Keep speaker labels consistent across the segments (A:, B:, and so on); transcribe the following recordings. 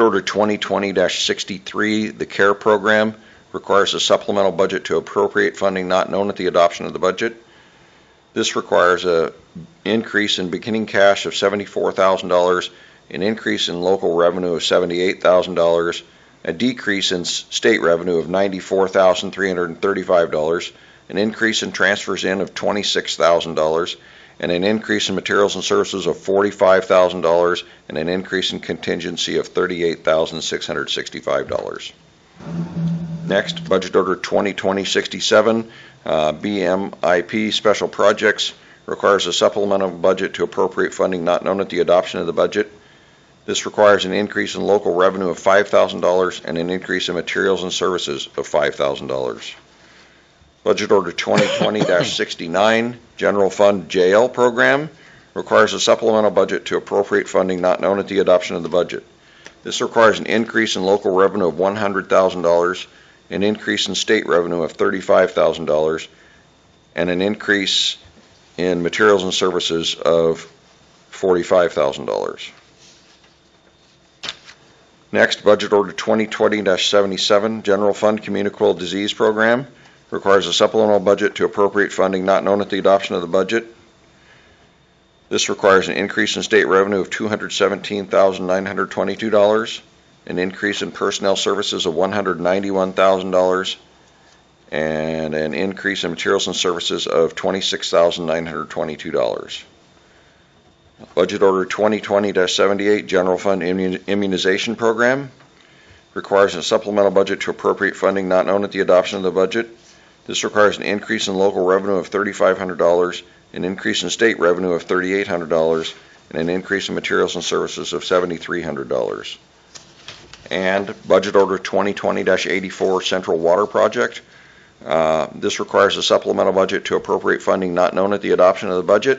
A: Order 2020-63, the CARE Program, requires a supplemental budget to appropriate funding not known at the adoption of the budget. This requires a increase in beginning cash of $74,000, an increase in local revenue of $78,000, a decrease in s- state revenue of $94,335, an increase in transfers in of $26,000, and an increase in materials and services of $45,000, and an increase in contingency of $38,665. Next, Budget Order 2020-67, uh, BMIP Special Projects, requires a supplemental budget to appropriate funding not known at the adoption of the budget. This requires an increase in local revenue of $5,000 and an increase in materials and services of $5,000. Budget Order 2020-69, General Fund JL Program, requires a supplemental budget to appropriate funding not known at the adoption of the budget. This requires an increase in local revenue of $100,000, an increase in state revenue of $35,000, and an increase in materials and services of $45,000. Next, Budget Order 2020-77, General Fund Communicable Disease Program, requires a supplemental budget to appropriate funding not known at the adoption of the budget. This requires an increase in state revenue of $217,922, an increase in personnel services of $191,000, and an increase in materials and services of $26,922. Budget Order 2020-78, General Fund Immun- Immunization Program, requires a supplemental budget to appropriate funding not known at the adoption of the budget. This requires an increase in local revenue of $3,500, an increase in state revenue of $3,800, and an increase in materials and services of $7,300. And Budget Order 2020-84, Central Water Project. Uh, This requires a supplemental budget to appropriate funding not known at the adoption of the budget.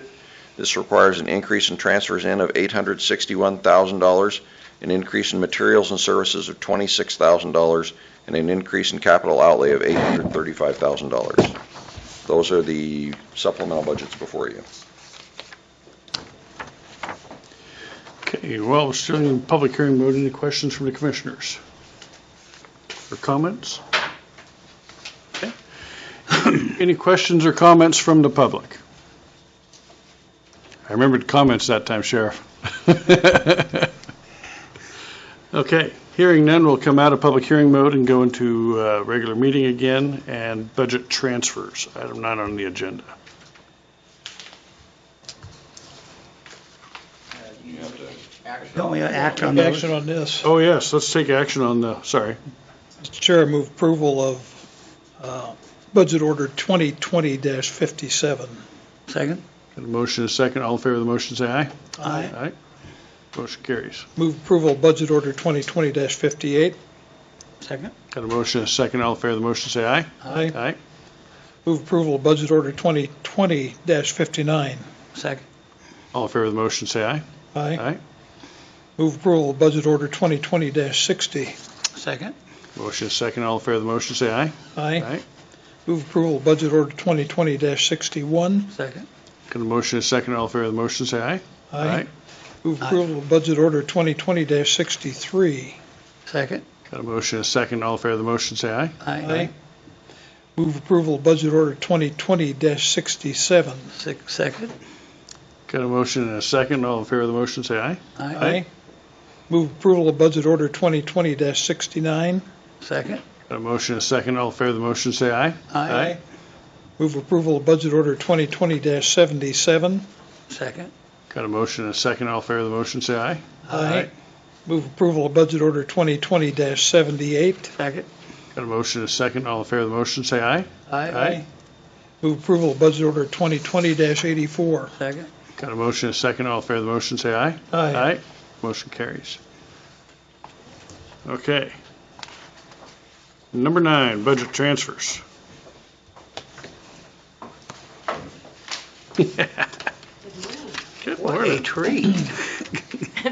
A: This requires an increase in transfers in of $861,000, an increase in materials and services of $26,000, and an increase in capital outlay of $835,000. Those are the supplemental budgets before you.
B: Okay, well, we're still in public hearing mode. Any questions from the commissioners? Or comments? Okay. Any questions or comments from the public? I remembered comments that time, Sheriff. Okay, hearing none, we'll come out of public hearing mode and go into uh, regular meeting again and budget transfers, item nine on the agenda.
C: Don't we act on those?
D: Action on this.
B: Oh, yes, let's take action on the, sorry.
D: Mr. Chair, I move approval of uh, Budget Order 2020-57.
C: Second?
B: Got a motion and a second. All in favor of the motion, say aye.
D: Aye.
B: Aye. Motion carries.
D: Move approval of Budget Order 2020-58.
C: Second?
B: Got a motion and a second. All in favor of the motion, say aye.
D: Aye.
B: Aye.
D: Move approval of Budget Order 2020-59.
C: Second?
B: All in favor of the motion, say aye.
D: Aye.
B: Aye.
D: Move approval of Budget Order 2020-60.
C: Second?
B: Motion and a second. All in favor of the motion, say aye.
D: Aye. Move approval of Budget Order 2020-61.
C: Second?
B: Got a motion and a second. All in favor of the motion, say aye.
D: Move
C: Aye.
D: approval of Budget Order 2020-63.
C: Second?
B: Got a motion and a second. All in favor of the motion, say aye.
C: Aye.
D: Move approval of Budget Order 2020-67.
C: Six, second?
B: Got a motion and a second. All in favor of the motion, say aye.
C: Aye.
D: Move approval of Budget Order 2020-69.
C: Second?
B: Got a motion and a second. All in favor of the motion, say aye. Aye.
D: Move approval of Budget Order 2020-77.
C: Second?
B: Got a motion and a second. All in favor of the motion, say aye.
D: Move approval of Budget Order 2020-78.
C: Second?
B: Got a motion and a second. All in favor of the motion, say aye. Aye.
D: Move approval of Budget Order 2020-84.
C: Second?
B: Got a motion and a second. All in favor of the motion, say aye.
D: Aye.
B: Motion carries. Okay. Number nine, budget transfers. Good
C: What a
B: morning.
C: treat.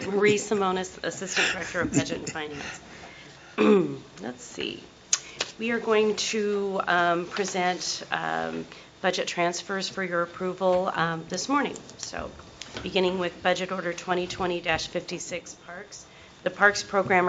E: Marie Simonis, Assistant Director of Budget and Finance. Let's see. We are going to um, present um, budget transfers for your approval um, this morning. So, beginning with Budget Order 2020-56 Parks. The Parks Program